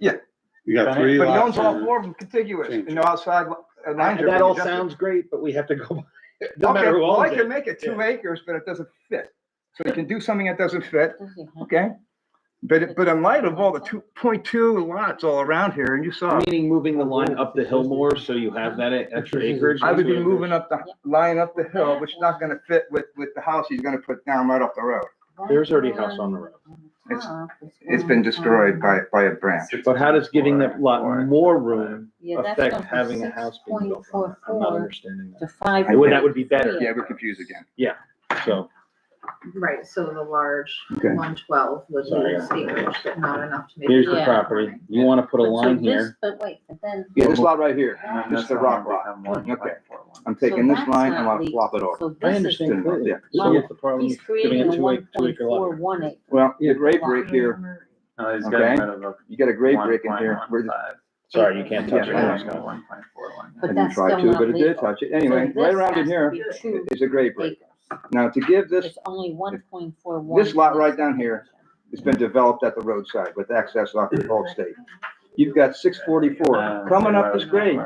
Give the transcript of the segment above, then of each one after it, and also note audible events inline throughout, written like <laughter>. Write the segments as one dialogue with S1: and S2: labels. S1: Yeah.
S2: You got
S3: Right,
S2: three
S1: But no one's
S2: lots.
S1: all
S4: uh,
S2: here.
S1: four of them contiguous
S2: Change.
S1: and no outside li- uh, lines.
S3: And
S1: are
S3: that
S1: being
S3: all
S1: adjusted.
S3: sounds great, but we have
S5: <laughs>
S3: to go, no
S1: Okay,
S3: matter who
S1: well, I
S3: owns
S1: can
S3: it.
S1: make it two
S3: Yeah.
S1: acres, but it doesn't fit. So you can do something that doesn't fit,
S6: Mhm.
S1: okay? But, it- but in light of all the two point two lots all around here, and you saw,
S5: Meaning moving the line up the hill more, so you have that e-, extra acreage?
S1: I would be moving up the, line up the hill, which is not gonna fit with, with the house he's gonna put down right off the road.
S5: There's already a house on the road.
S1: It's, it's
S6: Mm-hmm.
S1: been destroyed by, by a branch.
S5: But how does getting that lot more room
S6: Yeah, that's
S5: affect
S6: gone from
S5: having a house being built on it? I'm not
S6: 6.44
S5: understanding
S6: To
S5: that.
S6: five.
S5: I would, that would be better,
S1: Yeah, we're confused again.
S5: so.
S7: Right, so the large
S1: Okay.
S7: one twelve would
S5: Sorry.
S7: lose acres, but not enough to make.
S5: Here's the
S6: Yeah.
S5: property. You wanna put a
S6: But so
S5: line
S6: this-
S5: here.
S6: But wait, but then.
S1: Yeah, this lot right here,
S6: And then
S1: this is the rock lot. Okay. I'm
S6: so
S1: taking this
S6: that's
S1: line,
S6: not
S1: I'm gonna
S6: legal.
S1: flop it over.
S6: So
S5: I
S6: this is,
S5: understand completely. So
S6: Well,
S5: what's the problem?
S6: he's
S5: with giving
S6: creating
S5: it
S6: a
S5: two ac-
S6: one
S5: two
S6: point
S5: acre lot?
S6: four one acre.
S1: Well, you get grape right here,
S4: No, he's
S1: Okay.
S4: getting rid of a.
S1: you get a grape break in here, we're just,
S4: 1.15.
S5: Sorry, you can't touch it.
S1: Yeah.
S5: It's not-
S4: One point four one.
S1: I
S6: But
S1: didn't
S6: that's
S1: try
S6: still
S1: to,
S6: not
S1: but it did
S6: legal.
S1: touch it. Anyway,
S6: So
S1: right
S6: this
S1: around in
S6: has to
S1: here
S6: be two
S1: is a grape break.
S6: acres.
S1: Now, to give this
S6: It's only one point four one.
S1: This lot right down here. It's been developed at the roadside with access off the old state. You've got six forty-four coming up this grade.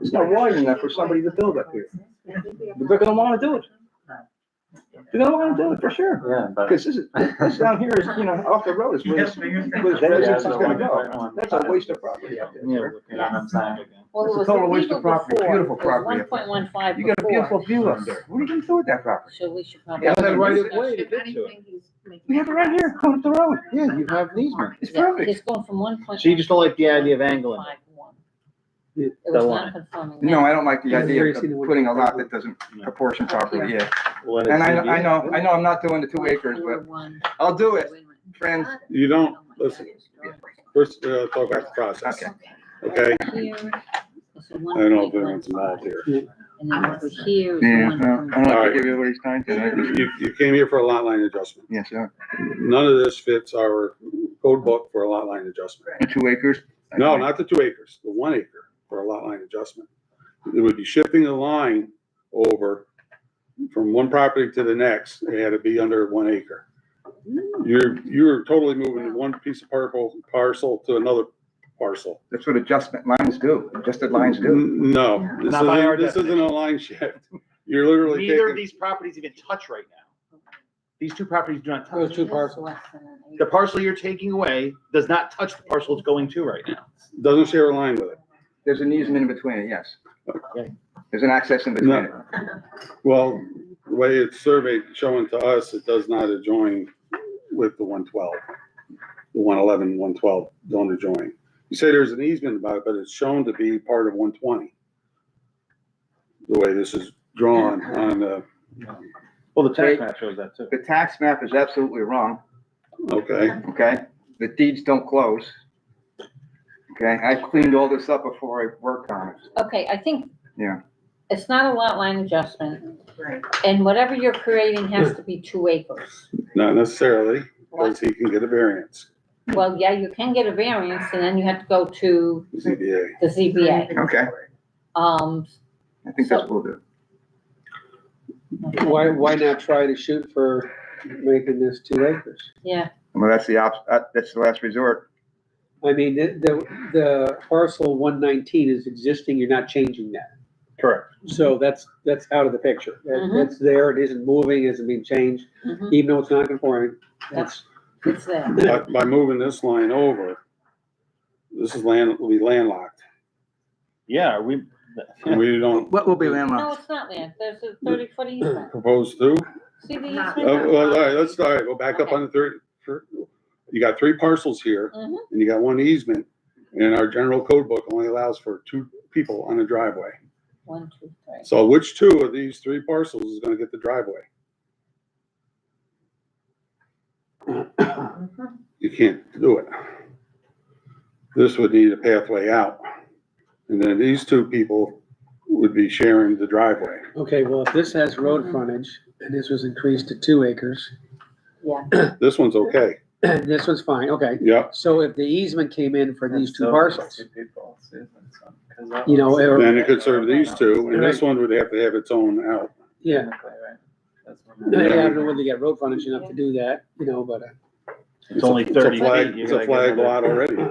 S1: It's not wide enough for somebody to build up here. They're gonna wanna do it. They're gonna wanna do it for sure.
S4: Yeah, but.
S1: Cause this is, this down here is, you know, off the road is where this, where this residence is gonna go. That's a waste of property out there.
S5: Yeah,
S1: sir.
S5: look at it.
S4: I'm saying.
S6: Well,
S1: It's
S6: it
S1: a
S6: was
S1: total waste of
S6: illegal
S1: property.
S6: before.
S1: Beautiful
S6: It was
S1: property
S6: One
S1: up there.
S6: point one five
S1: You got a beautiful
S6: before,
S1: view up there. What are you gonna do with that property?
S6: so we should probably.
S1: Yeah, that's right
S5: of way to get to it.
S1: We have it right here, going up the road.
S5: Yeah, you have an easement.
S1: It's
S6: Yeah,
S1: perfect.
S6: It's going from one point.
S5: So you just don't like the idea of angling?
S6: Five one.
S5: The
S6: It was
S5: line.
S6: non-conforming.
S1: No, I don't like the
S3: Yeah,
S1: idea
S3: very
S1: of
S3: seen the wood.
S1: putting a lot that doesn't proportion properly, yeah.
S5: Let it
S1: And I,
S5: be.
S1: I know, I know I'm not doing the two acres, but I'll do it, friends.
S2: You don't, listen, first, uh, talk about the process,
S1: Okay.
S2: okay? I don't know if anyone's involved here.
S6: And then over here is
S1: Yeah,
S6: the one.
S1: well,
S6: from-
S1: I don't
S2: All
S1: like
S2: right.
S1: to give everybody's time tonight.
S2: You, you came here for a lot line adjustment.
S1: Yes, uh, sir.
S2: None of this fits our code book for a lot line adjustment.
S1: The Two acres?
S2: No, not the two acres, the one acre for a lot line adjustment. It would be shifting the line over from one property to the next, it had to be under one acre. You're, you're totally moving from one piece of purple parcel to another parcel.
S1: That's what adjustment lines do, adjusted lines do.
S2: N- No, this
S5: Not by our
S2: isn't, this isn't a line shift. You're literally
S5: Neither of
S2: taking,
S5: these properties even touch right now. These two properties do not touch.
S6: This is less than an acre.
S5: The parcel you're taking away does not touch the parcel it's going to right now.
S2: doesn't share a line with it.
S1: There's an easement in between it, yes.
S5: Okay.
S1: There's an access in between it.
S2: Well, the way it's surveyed, showing to us, it does not adjoin with the one twelve. The 111, 112 don't adjoin. You say there's an easement about it, but it's shown to be part of one twenty. The way this is drawn on the,
S5: Well, the
S1: tax
S5: map shows that too.
S1: The tax map is absolutely wrong,
S2: okay,
S1: okay? The deeds don't close. Okay, I cleaned all this up before I worked on it.
S6: Okay, I think.
S1: Yeah.
S6: It's not a lot line adjustment,
S7: Right.
S6: and whatever you're creating has to be two acres.
S2: not necessarily, because he can get a variance,
S6: Well, yeah, you can get a variance, and then you have to go to
S2: ZBA.
S6: the ZBA.
S1: Okay,
S6: Um,
S1: I think that's what we'll do.
S3: Why, why not try to shoot for making this two acres?
S6: yeah,
S1: Well, that's the op, uh, that's the last resort.
S3: I mean, the, the- the parcel one nineteen is existing, you're not changing that.
S5: Correct.
S3: So that's, that's out of the picture. That,
S6: Mhm.
S3: that's there, it isn't moving, it isn't being changed,
S6: mhm,
S3: even though it's not conforming. That's,
S6: it's there.
S2: By, by moving this line over, this is land, will be landlocked,
S5: Yeah, are we,
S2: and we don't
S1: What will be
S6: No,
S1: landlocked?
S6: it's not land, there's a thirty foot easement,
S2: propose to.
S6: see the
S7: Not-
S2: Oh, well,
S6: easement?
S2: All right, let's, all right, go back up on the third, third- you got three parcels here,
S6: Mhm.
S2: and you got one easement, and our general code book only allows for two people on a driveway.
S6: One, two, three.
S2: So which two of these three parcels is gonna get the driveway? You can't do it. This would need a pathway out, and then these two people would be sharing the driveway.
S8: Okay, well, if this has road frontage, and this was increased to two
S3: <clears throat>
S8: acres,
S2: This one's okay,
S8: and this one's fine, okay.
S2: yep,
S8: So if the easement came in for these two
S4: So,
S8: parcels,
S4: two people, Susan, so- 'cause that
S8: You know,
S4: was-
S8: or-
S2: then it could serve these two, and this one would have to have its own out.
S3: <clears throat>
S8: yeah,
S4: Technically, right? That's what
S8: I
S4: I'm-
S8: don't know whether they got road frontage enough to do that, you know, but. uh,
S5: it's only
S2: It's a
S5: thirty
S2: flag,
S5: feet. you
S2: it's a
S5: gotta get
S2: flag
S5: another-
S2: lot already.